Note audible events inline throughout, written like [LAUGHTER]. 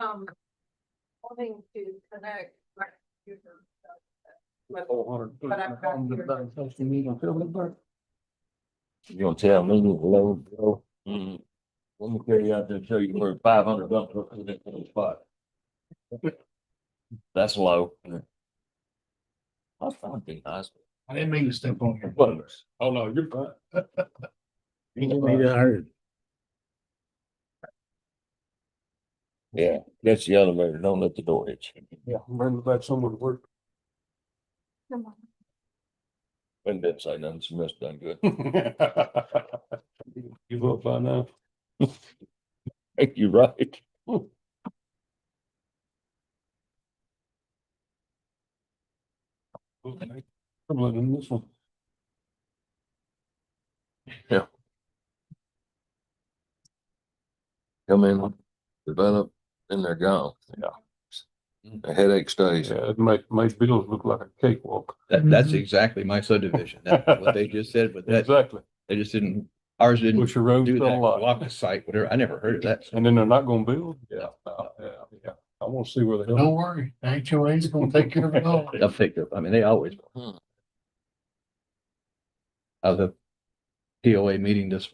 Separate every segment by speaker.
Speaker 1: um, wanting to connect my computer. But But I've got your-
Speaker 2: Well,
Speaker 3: You gonna tell me hello, bro? Mm-hmm. Let me carry out there and show you where five hundred bucks for that little spot. That's low. I thought it'd be nice.
Speaker 4: I didn't mean to step on your
Speaker 3: butters.
Speaker 4: Oh, no, you're fine.
Speaker 3: [LAUGHS] Yeah, that's the elevator. Don't let the door hit you.
Speaker 4: Yeah, remember that someone worked.
Speaker 3: And didn't say nothing. She must have done
Speaker 4: [LAUGHS]
Speaker 3: good.
Speaker 4: Give up by now.
Speaker 3: [LAUGHS] Thank you, right?
Speaker 4: Okay. I'm letting this one.
Speaker 3: Come in, develop, and they're gone. Yeah. The headache stays.
Speaker 4: Yeah, it made, made Beatles look like a cakewalk.
Speaker 5: That, that's
Speaker 2: Mhm.
Speaker 5: exactly my subdivision. That's
Speaker 4: [LAUGHS]
Speaker 5: what they just said, but that,
Speaker 4: Exactly.
Speaker 5: they just didn't, ours didn't
Speaker 4: Which your road's
Speaker 5: do
Speaker 4: still
Speaker 5: that.
Speaker 4: alive.
Speaker 5: Block the site, whatever. I never heard
Speaker 4: [LAUGHS]
Speaker 5: of that.
Speaker 4: And then they're not gonna build? Yeah, no, yeah, yeah. I wanna see where the hell.
Speaker 2: Don't worry, HOA is gonna take care of it all.
Speaker 5: They'll pick up. I mean, they always.
Speaker 3: Hmm.
Speaker 5: I was at POA meeting this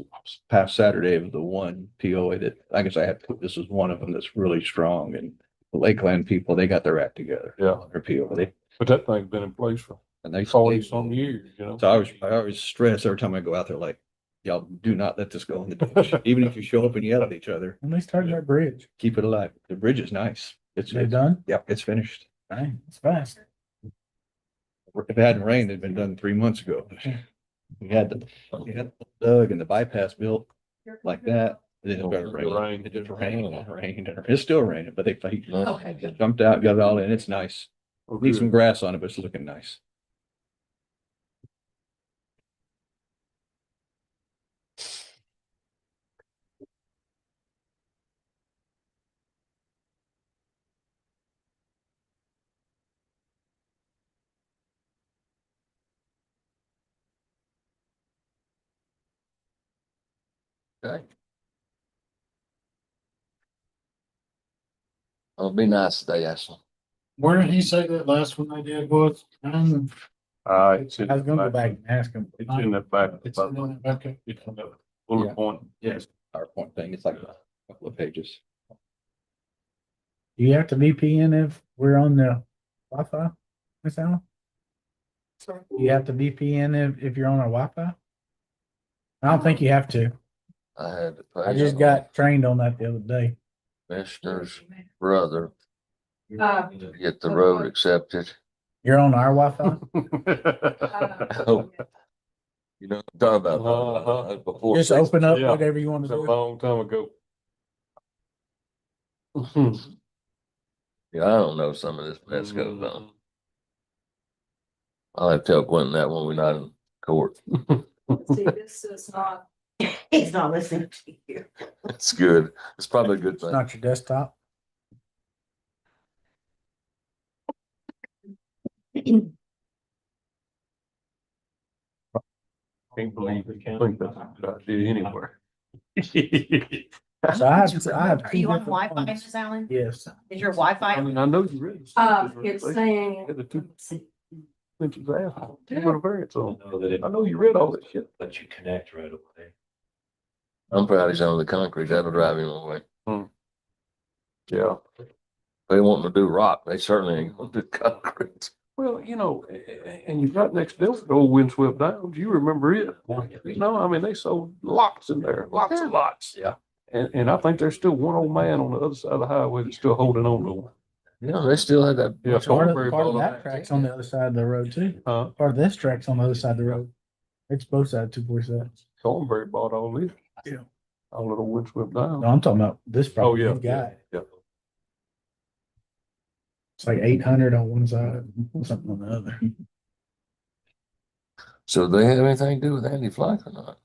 Speaker 5: past Saturday of the one POA that, I guess I had, this is one of them that's really strong and the Lakeland people, they got their act together.
Speaker 4: Yeah.
Speaker 5: Their POA, they,
Speaker 4: But that thing's been in place for
Speaker 5: and they.
Speaker 4: forty some years, you know?
Speaker 5: So I always, I always stress every time I go out there, like, y'all do not let this go in the
Speaker 4: [LAUGHS]
Speaker 5: ditch, even if you show up and yell at each other,
Speaker 6: When they started that bridge,
Speaker 5: keep it alive. The bridge is nice. It's,
Speaker 6: they
Speaker 5: it's,
Speaker 6: done?
Speaker 5: yeah, it's finished.
Speaker 6: Dang, it's fast.
Speaker 5: If it hadn't rained, it'd been done three months
Speaker 4: [LAUGHS]
Speaker 5: ago. We had the, we had the dug and the bypass built like that. Then it started raining. It just rained and rained and it's still raining, but they they
Speaker 1: Okay, good.
Speaker 5: jumped out, got it all in. It's nice.
Speaker 4: Oh,
Speaker 5: Need
Speaker 4: good.
Speaker 5: some grass on it, but it's looking nice.
Speaker 3: It'll be nice today, Ashley.
Speaker 6: Where did he say that last one I did was? Um,
Speaker 4: Uh, it's. in
Speaker 6: I was gonna go
Speaker 4: the
Speaker 6: back and ask him.
Speaker 4: It's in the back.
Speaker 6: It's in the- okay.
Speaker 4: It's in the
Speaker 5: Yeah.
Speaker 4: Bullet point. [LAUGHS]
Speaker 5: Yes. PowerPoint thing. It's like a couple of pages.
Speaker 6: Do you have to VPN if we're on the Wi-Fi? Miss Allen?
Speaker 1: Sorry.
Speaker 6: Do you have to VPN if, if you're on a Wi-Fi? I don't think you have to.
Speaker 3: I had. to
Speaker 6: I
Speaker 3: pay
Speaker 6: just got trained on that the other day.
Speaker 3: Commissioner's brother
Speaker 1: Uh,
Speaker 3: to get the road accepted.
Speaker 6: You're on our Wi-Fi?
Speaker 1: uh,
Speaker 3: Oh.
Speaker 4: [LAUGHS]
Speaker 3: You know, what I'm talking about.
Speaker 4: Uh-huh.
Speaker 3: That's before
Speaker 6: Just
Speaker 3: 60.
Speaker 6: open up
Speaker 4: Yeah.
Speaker 6: whatever you want
Speaker 4: It's
Speaker 6: to
Speaker 4: a
Speaker 6: do.
Speaker 4: long time ago. Mhm.
Speaker 3: Yeah, I don't know some of this mess goes
Speaker 6: Mm-hmm.
Speaker 3: on. I'll have to tell Quentin that when we're not in court. [LAUGHS]
Speaker 1: See, this is not,
Speaker 7: He's not listening to you.
Speaker 3: It's good. It's probably a good
Speaker 6: It's
Speaker 3: thing.
Speaker 6: not your desktop.
Speaker 4: Can't believe we think that's a good idea anywhere.
Speaker 6: So I have, I have.
Speaker 7: Are
Speaker 6: two
Speaker 7: you on
Speaker 6: different
Speaker 7: Wi-Fi,
Speaker 6: ones.
Speaker 7: Ms. Allen?
Speaker 6: Yes.
Speaker 7: Is your Wi-Fi?
Speaker 4: I mean, I know you read.
Speaker 1: um, it's saying, [LAUGHS]
Speaker 4: The two
Speaker 7: See,
Speaker 4: inches out, you want a variance on. I know you read all this shit.
Speaker 3: I'm proud he's on the concrete. That'll drive him away.
Speaker 4: Yeah.
Speaker 3: They want to do rock. They certainly ain't gonna do [LAUGHS] concrete.
Speaker 4: Well, you know, a- a- and you've got next door, to old windswept downs, you remember it. No, I mean, they sold lots in there, lots and lots.
Speaker 3: Yeah.
Speaker 4: And, and I think there's still one old man on the other side of the highway that's still holding on to one.
Speaker 3: No, they still had that.
Speaker 4: Yeah,
Speaker 6: Part of,
Speaker 4: Cornbury
Speaker 6: part of
Speaker 4: Bowl.
Speaker 6: that track's on the other side of the road too.
Speaker 4: Huh?
Speaker 6: Part of this track's on the other side of the road. It's both sides, two four seven.
Speaker 4: Thornberry bought all this.
Speaker 6: Yeah.
Speaker 4: All little windswept
Speaker 6: No,
Speaker 4: down.
Speaker 6: I'm talking about this
Speaker 4: Oh,
Speaker 6: property
Speaker 4: yeah.
Speaker 6: you've got.
Speaker 4: Yeah.
Speaker 6: It's like eight hundred on one side, something on the other.
Speaker 3: So they have anything to do with Andy Flack or not?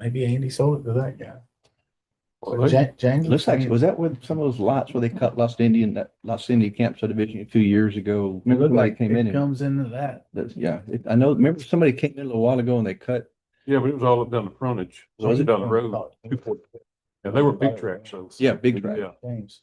Speaker 6: Maybe Andy sold it to that guy.
Speaker 4: Well, they-
Speaker 6: Ja- James.
Speaker 5: Looks like, was that with some of those lots where they cut Lost Indian, that Lost Indian camp subdivision a few years ago?
Speaker 6: It
Speaker 5: Remember
Speaker 6: looked
Speaker 5: somebody
Speaker 6: like
Speaker 5: came in
Speaker 6: it
Speaker 5: and,
Speaker 6: comes into that.
Speaker 5: that's- yeah, it- I know, remember somebody came in a little while ago and they cut,
Speaker 4: Yeah, but it was all up down the frontage,
Speaker 5: Was it?
Speaker 4: down the road. Yeah, they were big tracks, so.
Speaker 5: yeah, big drive.
Speaker 4: Yeah,
Speaker 6: James.